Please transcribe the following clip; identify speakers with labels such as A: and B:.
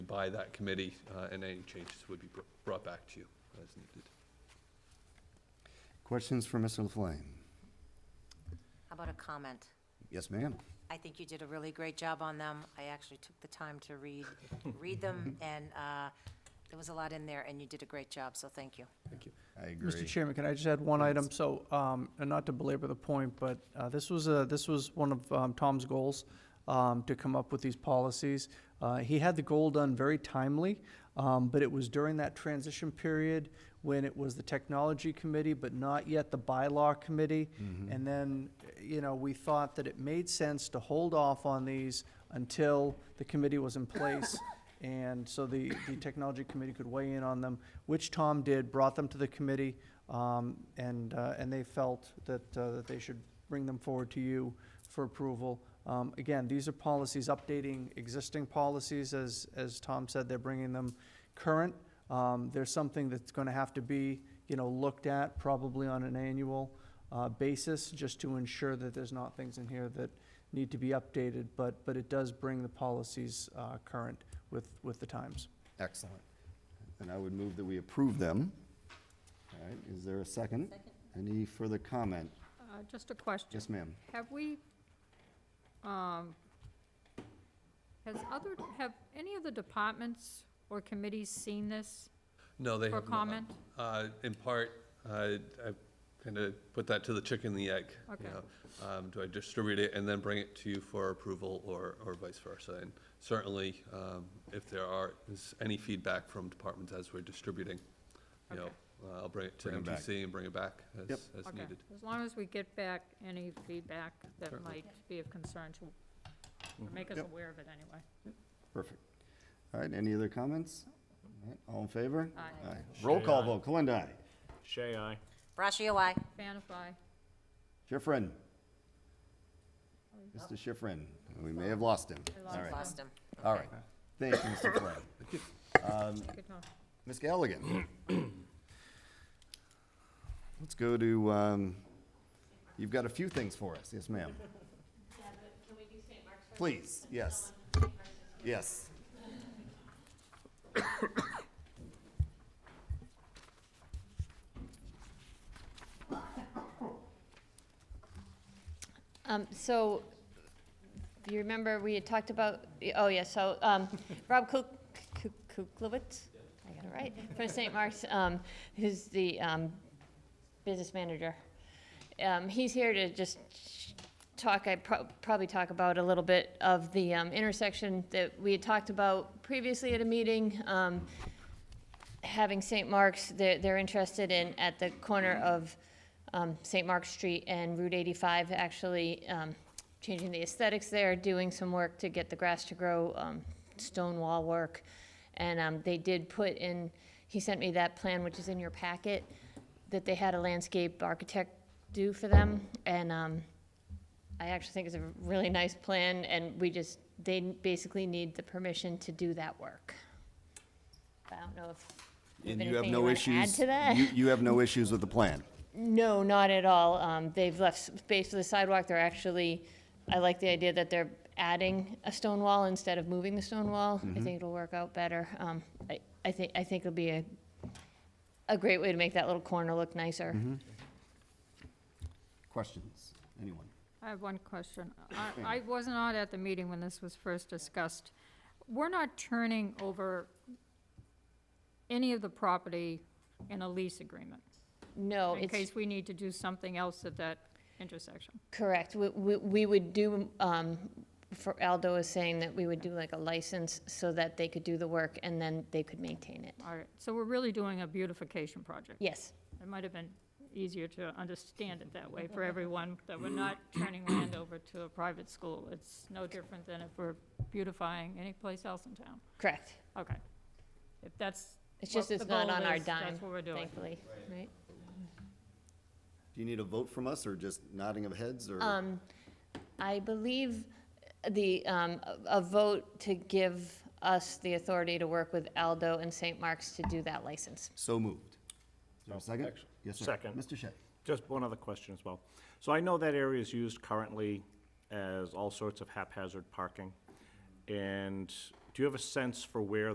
A: by that committee, uh, and any changes would be br- brought back to you as needed.
B: Questions for Mr. Laflamme?
C: How about a comment?
B: Yes, ma'am.
C: I think you did a really great job on them. I actually took the time to read, read them, and uh, there was a lot in there, and you did a great job, so thank you.
B: I agree.
D: Mr. Chairman, can I just add one item? So, um, and not to belabor the point, but, uh, this was a, this was one of, um, Tom's goals, um, to come up with these policies. Uh, he had the goal done very timely, um, but it was during that transition period when it was the technology committee, but not yet the bylaw committee. And then, you know, we thought that it made sense to hold off on these until the committee was in place and so the, the technology committee could weigh in on them, which Tom did, brought them to the committee, um, and, uh, and they felt that, uh, that they should bring them forward to you for approval. Um, again, these are policies updating existing policies, as, as Tom said, they're bringing them current. Um, there's something that's gonna have to be, you know, looked at probably on an annual, uh, basis, just to ensure that there's not things in here that need to be updated, but, but it does bring the policies, uh, current with, with the times.
B: Excellent. And I would move that we approve them. All right, is there a second? Any further comment?
E: Uh, Just a question.
B: Yes, ma'am.
E: Have we, um, has other, have any of the departments or committees seen this
A: No, they have
E: for
A: not.
E: comment?
A: Uh, In part, I kind of put that to the chicken and the egg. you
E: Okay.
A: know. Um, Do I distribute it and then bring it to you for approval or, or vice versa? And certainly, um, if there are, is any feedback from departments as we're distributing, you know,
E: Okay.
A: uh, I'll bring it to
B: Bring 'em back.
A: MTC and bring it back
B: Yep.
A: as, as
E: Okay,
A: needed.
E: as long as we get back any feedback that
A: Certainly. Mm-hmm.
E: might be of concern to, or make us
B: Yep.
E: aware of it anyway.
B: Perfect. All right, any other comments? All right, All in favor?
E: Aye.
B: Roll call
F: Shay, aye.
B: vote, Kalenda aye.
F: Shay, aye.
C: Brashio, aye.
E: Vanify,
B: Schifrin. Mr. Schifrin, we may have lost him.
E: I
B: All right,
C: Lost him.
B: all right. Thank you, Mr. Flynn.
E: good one.
B: Ms. Galligan. Let's go to, um, you've got a few things for us. Yes, ma'am. Please, yes. Yes.
G: Um, so, you remember we had talked about, oh yeah, so, um, Rob Kuk- Kuk- Kuklewicz? I got it right, from St. Mark's, um, who's the, um, business manager. Um, he's here to just talk, I prob- probably talk about a little bit of the, um, intersection that we had talked about previously at a meeting. Um, having St. Mark's, they're, they're interested in, at the corner of um, St. Mark's Street and Route 85, actually um, changing the aesthetics there, doing some work to get the grass to grow, um, stone wall work. And um, they did put in, he sent me that plan, which is in your packet, that they had a landscape architect do for them. And um, I actually think it's a really nice plan, and we just, they basically need the permission to do that work. I don't know if you
B: And
G: have
B: you have
G: anything you
B: no
G: want to add
B: issues.
G: to that?
B: You, you have no issues with the plan.
G: No, not at all. Um, they've left space for the sidewalk. They're actually, I like the idea that they're adding a stone wall instead of moving the stone wall. I think it'll work out better. Um, I, I think, I think it'll be a, a great way to make that little corner look nicer.
B: Questions? Anyone?
E: I have one question. I, I was not at the meeting when this was first discussed. We're not turning over any of the property in a lease agreement,
G: No,
E: in
G: it's
E: case we need to do something else at that intersection.
G: correct. We, we, we would do, um, for Aldo is saying that we would do like a license so that they could do the work and then they could maintain it.
E: All right, so we're really doing a beautification project.
G: Yes,
E: It might have been easier to understand it that way for everyone, that we're not turning land over to a private school. It's no different than if we're beautifying any place else in town.
G: correct.
E: Okay. If that's
G: It's just
E: what the
G: it's not
E: goal
G: on our
E: is,
G: dime,
E: That's what we're doing.
G: thankfully, right?
B: Do you need a vote from us or just nodding of heads or?
G: Um, I believe the, um, a- a vote to give us the authority to work with Aldo and St. Mark's to do that license.
B: So moved. Is there a second?
F: Action.
B: Yes, sir.
F: Second.
B: Mr. Shea.
F: Just one other question as well. So I know that area is used currently as all sorts of haphazard parking. And do you have a sense for where